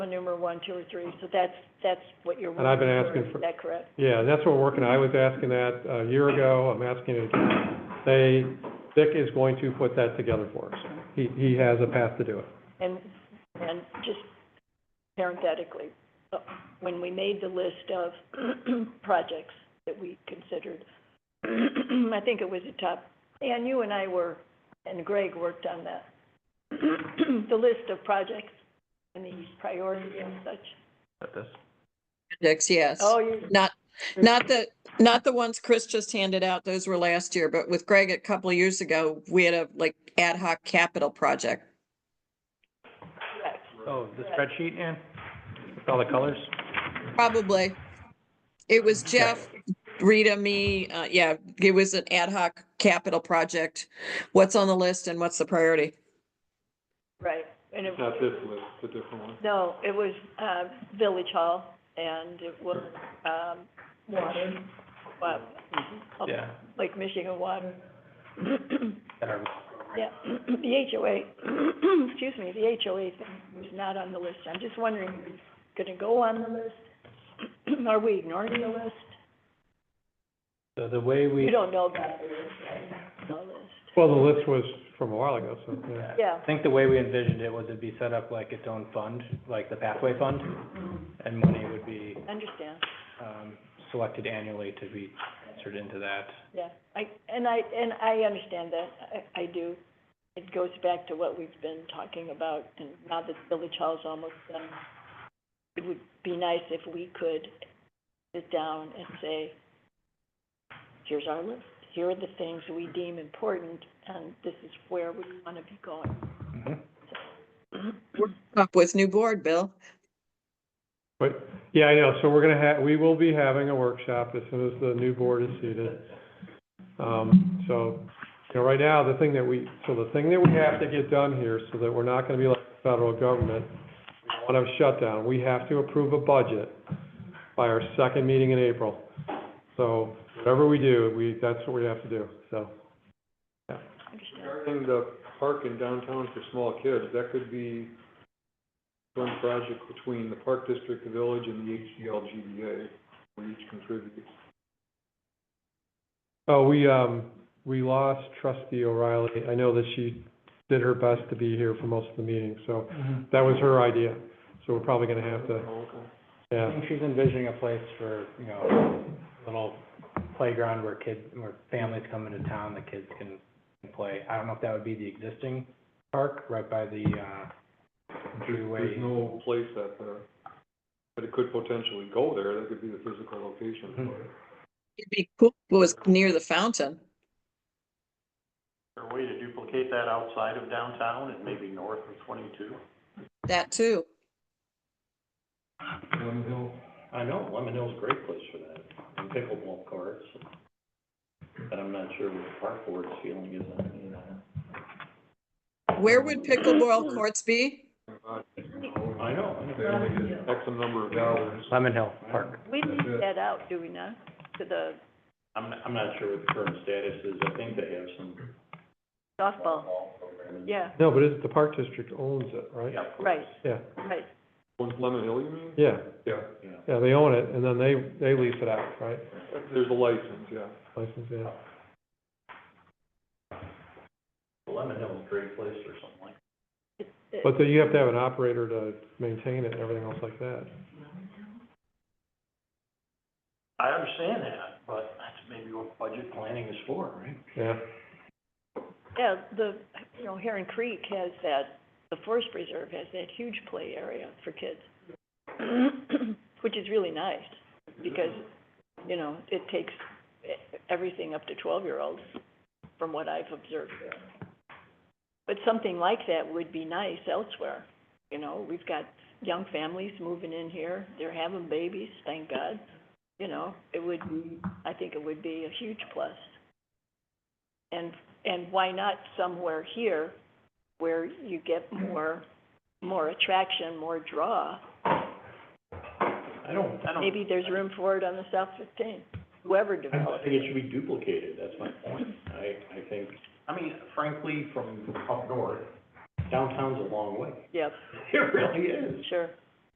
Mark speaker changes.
Speaker 1: number one, two, or three, so that's, that's what you're
Speaker 2: And I've been
Speaker 1: working
Speaker 2: asking for-
Speaker 1: Is that correct?
Speaker 2: Yeah, that's what we're working on. I was asking that uh, a year ago, I'm asking it again. They, Dick is going to put that together for us. He, he has a path to do it.
Speaker 1: And, and just parenthetically, uh, when we made the list of projects that we considered, I think it was a top, and you and I were, and Greg worked on that, the list of projects and these priorities and such.
Speaker 3: Projects, yes.
Speaker 1: Oh, you,
Speaker 3: Not, not the, not the ones Chris just handed out. Those were last year, but with Greg a couple of years ago, we had a like ad hoc capital project.
Speaker 1: correct.
Speaker 4: Oh, the spreadsheet, Ann? With all the colors?
Speaker 3: Probably. It was Jeff, Rita, me, uh, yeah, it was an ad hoc capital project. What's on the list and what's the priority?
Speaker 1: Right, and it,
Speaker 2: this list, it's a different one.
Speaker 1: no, it was, uh, Village Hall, and it was, um, water, uh,
Speaker 4: Yeah.
Speaker 1: Lake Michigan water.
Speaker 4: That are-
Speaker 1: Yeah, the HOA, excuse me, the HOA thing was not on the list, I'm just wondering, are we gonna go on the list? Are we ignoring the list?
Speaker 4: So the way
Speaker 1: You
Speaker 4: we,
Speaker 1: don't know about the list, right? The list,
Speaker 2: Well, the list was from a while ago, so, yeah.
Speaker 1: yeah,
Speaker 4: I think the way we envisioned it was it'd be set up like its own fund, like the pathway fund, and money would be,
Speaker 1: understand,
Speaker 4: um, selected annually to be transferred into that.
Speaker 1: yeah, I, and I, and I understand that, I, I do. It goes back to what we've been talking about, and now that Village Hall's almost done, it would be nice if we could sit down and say, here's our list, here are the things we deem important, and this is where we want to be going.
Speaker 3: Up with new board, Bill.
Speaker 2: But, yeah, I know, so we're gonna have, we will be having a workshop as soon as the new board is seated. Um, so, you know, right now, the thing that we, so the thing that we have to get done here, so that we're not gonna be like the federal government, we don't wanna have shutdown, we have to approve a budget by our second meeting in April. So, whatever we do, we, that's what we have to do, so.
Speaker 1: Understand?
Speaker 5: Regarding the park in downtown for small kids, that could be one project between the park district, the village, and the HDL GBA, where each contributes.
Speaker 2: Oh, we, um, we lost trustee O'Reilly, I know that she did her best to be here for most of the meetings, so
Speaker 4: Mm-hmm.
Speaker 2: That was her idea, so we're probably gonna have to,
Speaker 5: Oh,
Speaker 4: I
Speaker 2: yeah,
Speaker 4: think she's envisioning a place for, you know, little playground where kids, where families come into town, the kids can can play. I don't know if that would be the existing park right by the, uh,
Speaker 5: There's,
Speaker 4: entryway.
Speaker 5: there's no place at the, but it could potentially go there, that could be the physical location
Speaker 2: Mm-hmm.
Speaker 5: for it.
Speaker 3: It'd be cool if it was near the fountain.
Speaker 6: Or a way to duplicate that outside of downtown and maybe north of twenty-two?
Speaker 3: That too.
Speaker 5: Lemon Hill,
Speaker 6: I know, Lemon Hill's a great place for that, and pickleball courts. But I'm not sure what the park board's feeling is on any of that.
Speaker 3: Where would pickleball courts be?
Speaker 5: about
Speaker 6: I know, I know.
Speaker 5: X number of dollars.
Speaker 4: Lemon Hill Park.
Speaker 1: We leave that out, do we not, to the
Speaker 6: I'm, I'm not sure what the current status is, I think they have some
Speaker 1: softball,
Speaker 6: ball programs.
Speaker 1: yeah,
Speaker 2: no, but it's, the park district owns it, right?
Speaker 6: Yeah, of course.
Speaker 1: right,
Speaker 2: Yeah,
Speaker 1: right,
Speaker 5: One's Lemon Hill, you mean?
Speaker 2: yeah,
Speaker 5: Yeah.
Speaker 6: Yeah.
Speaker 2: yeah, they own it, and then they, they lease it out, right?
Speaker 5: There's a license, yeah.
Speaker 2: License, yeah.
Speaker 6: Lemon Hill's a great place for something like,
Speaker 2: But then you have to have an operator to maintain it and everything else like that.
Speaker 6: I understand that, but that's maybe what budget planning is for, right?
Speaker 2: Yeah,
Speaker 1: Yeah, the, you know, Heron Creek has that, the forest preserve has that huge play area for kids, which is really nice, because, you know, it takes e- everything up to twelve-year-olds, from what I've observed there. But something like that would be nice elsewhere, you know, we've got young families moving in here, they're having babies, thank God, you know, it would, be I think it would be a huge plus. And and why not somewhere here where you get
Speaker 6: Mm-hmm.
Speaker 1: more, more attraction, more draw?
Speaker 6: I don't, I don't.
Speaker 1: Maybe there's room for it on the South fifteen, whoever
Speaker 6: Oh. I don't
Speaker 1: develops
Speaker 6: think it should be duplicated, that's my point. I, I think, I mean, frankly, from up north, downtown's a long way.
Speaker 1: Yep,
Speaker 6: It really is.
Speaker 1: sure.